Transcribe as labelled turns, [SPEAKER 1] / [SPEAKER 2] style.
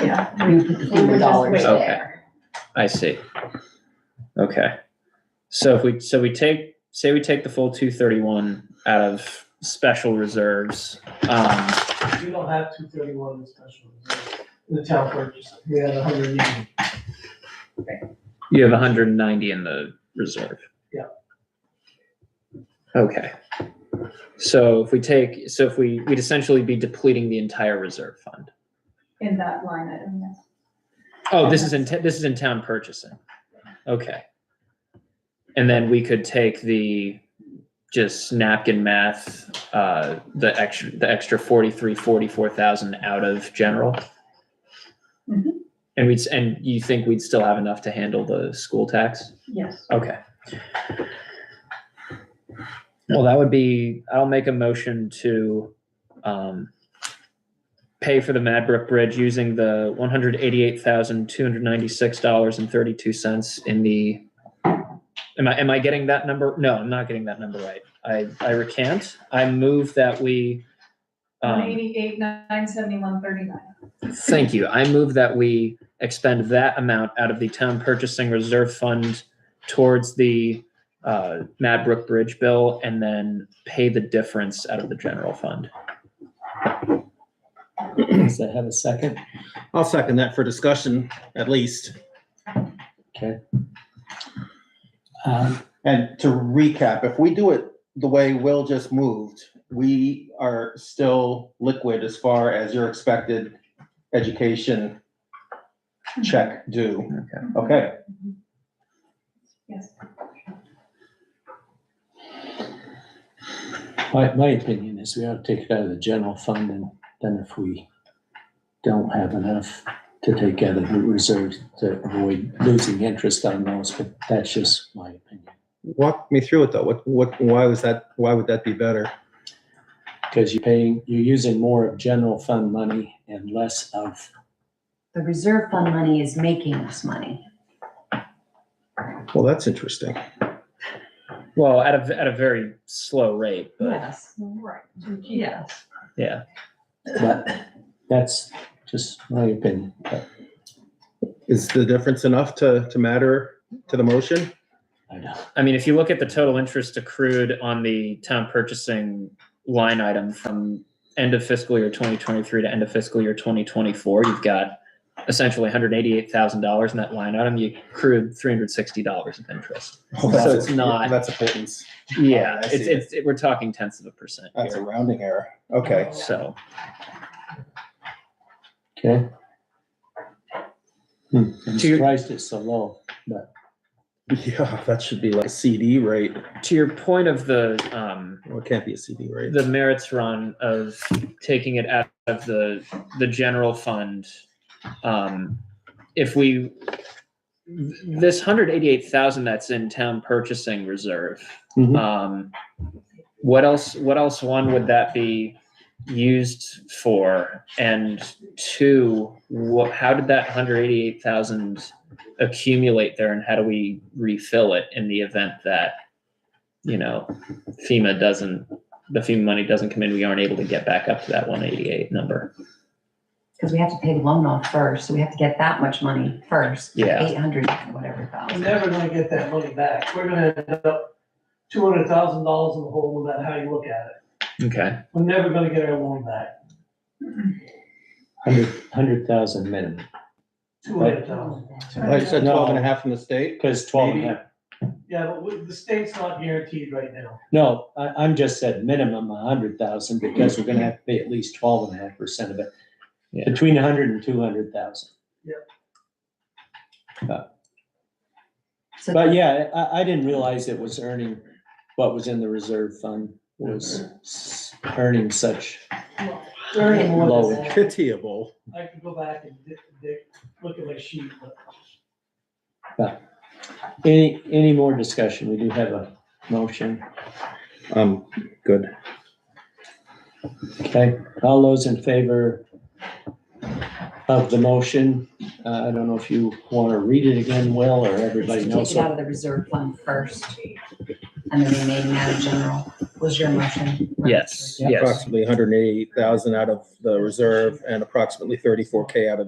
[SPEAKER 1] yeah,
[SPEAKER 2] we put the
[SPEAKER 1] they were
[SPEAKER 2] fifty
[SPEAKER 1] just way
[SPEAKER 2] dollars.
[SPEAKER 3] Okay.
[SPEAKER 1] there.
[SPEAKER 3] I see. Okay. So if we, so we take, say we take the full two thirty-one out of special reserves. Um,
[SPEAKER 4] We don't have two thirty-one in special reserve, in the town purchase, we had a hundred and
[SPEAKER 3] you have hundred and ninety in the reserve.
[SPEAKER 4] Yeah.
[SPEAKER 3] Okay. So if we take, so if we, we'd essentially be depleting the entire reserve fund.
[SPEAKER 1] In that line item, yes.
[SPEAKER 3] Oh, this is in, ta- this is in town purchasing. Okay. And then we could take the, just napkin math, uh, the extra, the extra forty-three, forty-four thousand out of general.
[SPEAKER 1] Mhm.
[SPEAKER 3] And we'd, s- and you think we'd still have enough to handle the school tax?
[SPEAKER 1] Yes.
[SPEAKER 3] Okay. Well, that would be, I'll make a motion to, um, pay for the Madbrook Bridge using the one hundred eighty-eight thousand, two hundred ninety-six dollars and thirty-two cents in the, am I, am I getting that number? No, I'm not getting that number right. I, I recant. I move that we,
[SPEAKER 1] One
[SPEAKER 3] um,
[SPEAKER 1] eighty-eight, nine seventy-one, thirty-nine.
[SPEAKER 3] Thank you. I move that we expend that amount out of the town purchasing reserve fund towards the uh, Madbrook Bridge bill and then pay the difference out of the general fund.
[SPEAKER 5] Does that have a second?
[SPEAKER 6] I'll second that for discussion at least.
[SPEAKER 5] Okay. Um,
[SPEAKER 6] And to recap, if we do it the way Will just moved, we are still liquid as far as your expected education check due. Okay,
[SPEAKER 1] Yes.
[SPEAKER 5] My, my opinion is we ought to take it out of the general fund and then if we don't have enough to take out of the reserves to avoid losing interest on those, but that's just my opinion.
[SPEAKER 6] walk me through it though. What, what, why was that, why would that be better?
[SPEAKER 5] Because you're paying, you're using more of general fund money and less of,
[SPEAKER 2] The reserve fund money is making us money.
[SPEAKER 6] Well, that's interesting.
[SPEAKER 3] Well, at a, at a very slow rate, but
[SPEAKER 2] Yes.
[SPEAKER 1] Right. Yes.
[SPEAKER 3] yeah.
[SPEAKER 5] but that's just my opinion. But
[SPEAKER 6] Is the difference enough to, to matter to the motion?
[SPEAKER 5] I don't,
[SPEAKER 3] I mean, if you look at the total interest accrued on the town purchasing line item from end of fiscal year 2023 to end of fiscal year 2024, you've got essentially $188,000 in that line item. You accrued $360 of interest. So
[SPEAKER 6] Oh, that's-
[SPEAKER 3] it's not-
[SPEAKER 6] That's a pittance.
[SPEAKER 3] Yeah,
[SPEAKER 6] I see.
[SPEAKER 3] it's, it's, it- we're talking tenths of a percent
[SPEAKER 6] That's a
[SPEAKER 3] here.
[SPEAKER 6] rounding error. Okay.
[SPEAKER 3] So,
[SPEAKER 5] okay? Hmm, I'm
[SPEAKER 3] To your-
[SPEAKER 5] surprised it's so low.
[SPEAKER 6] Yeah, that should be like a CD rate.
[SPEAKER 3] to your point of the, um,
[SPEAKER 6] Well, it can't be a CD rate.
[SPEAKER 3] the merits run of taking it out of the the general fund um if we this 188,000 that's in town purchasing reserve
[SPEAKER 5] Mhm.
[SPEAKER 3] um what else what else one would that be used for and two what how did that 188,000 accumulate there and how do we refill it in the event that you know FEMA doesn't the FEMA money doesn't come in, we aren't able to get back up to that one eighty-eight number.
[SPEAKER 2] Because we have to pay the loan off first, so we have to get that much money first.
[SPEAKER 3] Yeah.
[SPEAKER 2] Eight hundred, whatever
[SPEAKER 4] We're
[SPEAKER 2] thousand.
[SPEAKER 4] never gonna get that money back, we're gonna end up two hundred thousand dollars in the hole, no matter how you look at
[SPEAKER 3] Okay.
[SPEAKER 4] it, we're never gonna get our loan back,
[SPEAKER 5] Hundred, hundred thousand minimum,
[SPEAKER 4] two hundred thousand.
[SPEAKER 6] Like I said,
[SPEAKER 5] No.
[SPEAKER 6] twelve and a half from the state.
[SPEAKER 5] because twelve and a
[SPEAKER 6] Maybe.
[SPEAKER 5] half
[SPEAKER 4] Yeah, but we- the state's not guaranteed right now,
[SPEAKER 5] No, I, I'm just said minimum a hundred thousand because we're gonna have to pay at least twelve and a half percent of it.
[SPEAKER 3] Yeah.
[SPEAKER 5] Between a hundred and two hundred thousand.
[SPEAKER 2] So
[SPEAKER 5] But yeah, I, I didn't realize it was earning what was in the reserve fund was s- earning such.
[SPEAKER 4] very
[SPEAKER 5] Low.
[SPEAKER 4] more than that.
[SPEAKER 6] Pitiable.
[SPEAKER 4] I could go back and dig, dig- look at my sheet, but
[SPEAKER 5] Any, any more discussion? We do have a motion.
[SPEAKER 6] Um, good.
[SPEAKER 5] Okay, all those in favor of the motion? Uh, I don't know if you want to read it again, Will, or everybody
[SPEAKER 2] Just
[SPEAKER 5] knows.
[SPEAKER 2] Take it out
[SPEAKER 5] what-
[SPEAKER 2] of the reserve fund first, and the remaining out of general was your motion. right?
[SPEAKER 3] Yes, yes.
[SPEAKER 6] Approximately hundred and eighty thousand out of the reserve and approximately thirty-four K out of